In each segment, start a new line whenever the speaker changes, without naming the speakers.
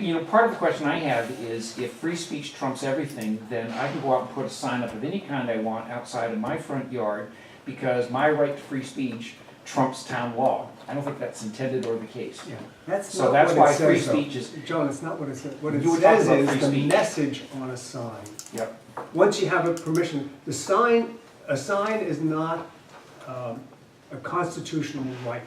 you know, part of the question I have is if free speech trumps everything, then I can go out and put a sign up of any kind I want outside of my front yard because my right to free speech trumps town law. I don't think that's intended or the case.
Yeah, that's
So
not
that's
what
why
it
free
says, though.
speech is,
John, that's not what it says. What it
You were talking
says
about
is
free
the
speech.
message on a sign.
yep,
Once you have a permission, the sign, a sign is not um, a constitutional right.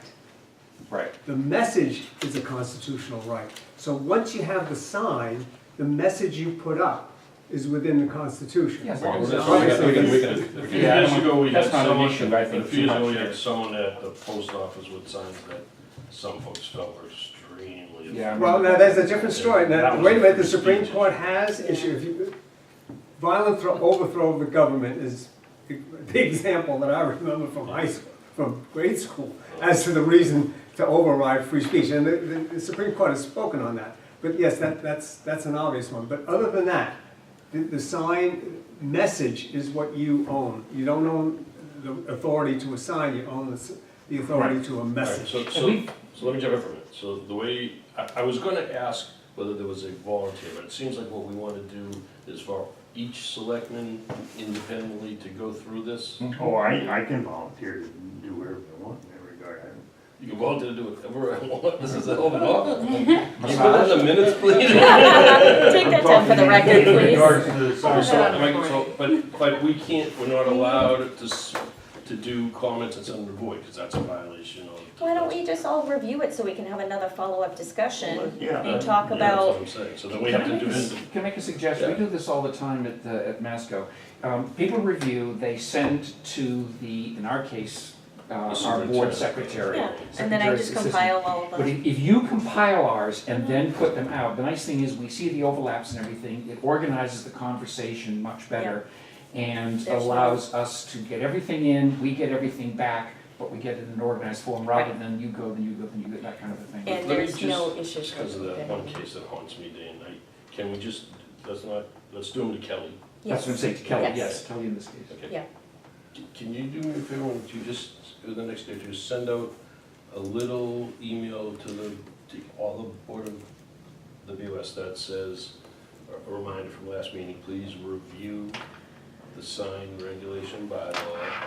right.
The message is a constitutional right. So once you have the sign, the message you put up is within the Constitution.
Yes,
We
Obviously,
can- we can- we can-
A
we
few
can-
Yeah, I
years
don't-
ago, we had
that's not an
someone,
issue, I think,
a few years
too
ago, we
much, yeah.
had someone at the post office with signs that some folks felt were extremely.
Yeah, I
Well, now, that's a different story. Now,
That was
wait a minute, the
free
Supreme
speech.
Court has issued, if you- violent thro- overthrow of the government is the example that I remember from high school, from grade school, as to the reason to override free speech. And the- the, the Supreme Court has spoken on that. But yes, that, that's, that's an obvious one. But other than that, the, the sign message is what you own. You don't own the authority to a sign, you own the, s- the authority to a
All right,
message.
so, so, so let me jump in for a minute. So the way, I, I was gonna ask whether there was a volunteer, but it seems like what we wanna do is for each selectman independently to go through this.
Oh, I, I can volunteer to do whatever I want in that regard. I-
You can volunteer to do whatever I want, this is a hell of an office. Can you put that in the minutes, please?
Take that down for the
With
record, please.
regards to the
Hold
so-
that up
like,
for
so- But, but we can't, we're not allowed to, s- to do comments that's under void, because that's a violation of.
Why don't we just all review it so we can have another follow-up discussion?
Yeah,
uh,
You talk
Yeah, that's what
about,
I'm saying. So then we have to do it.
Can I make a suggestion? We
Yeah.
do this all the time at, the- at Masco. Um, People review, they send to the, in our case, uh, our board secretary.
yeah, and then I
secretary's
just
assistant.
compile all of
But
them.
if, if you compile ours and then put them out, the nice thing is we see the overlaps and everything, it organizes the conversation much better and
There's no-
allows us to get everything in, we get everything back, but we get it in an organized form rather than you go, then you go, then you go, that kind of a thing.
And
Let me
there's no issues.
Just because of that one case that haunts me day and night, can we just, let's not, let's do them to Kelly.
That's what I'm saying to Kelly,
Yes.
yes, Kelly in this case.
Okay.
Yeah.
C- Can you do me a favor, and you just, over the next day, just send out a little email to the, to all the board of the BOS that says, a a reminder from last meeting, please review the sign regulation bylaw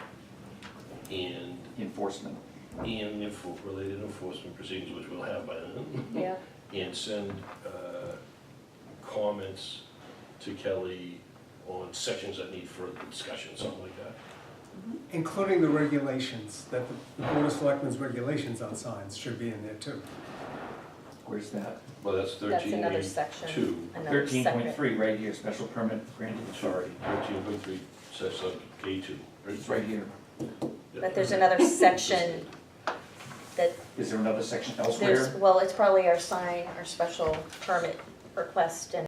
and,
Enforcement.
and the enfor- related enforcement proceedings, which we'll have by then.
Yeah,
and send uh, comments to Kelly on sections that need further discussion, something like that.
Including the regulations, that the the Board of Selectmen's regulations on signs should be in there too.
Where's that?
Well, that's
that's
thirteen
another
eight
section,
two.
another
Thirteen point
separate.
three, right here, special permit granted
Sorry,
authority.
thirteen point three, says like A two.
It's right here.
But there's another section that
Is there another section elsewhere?
there's, well, it's probably our sign, our special permit request and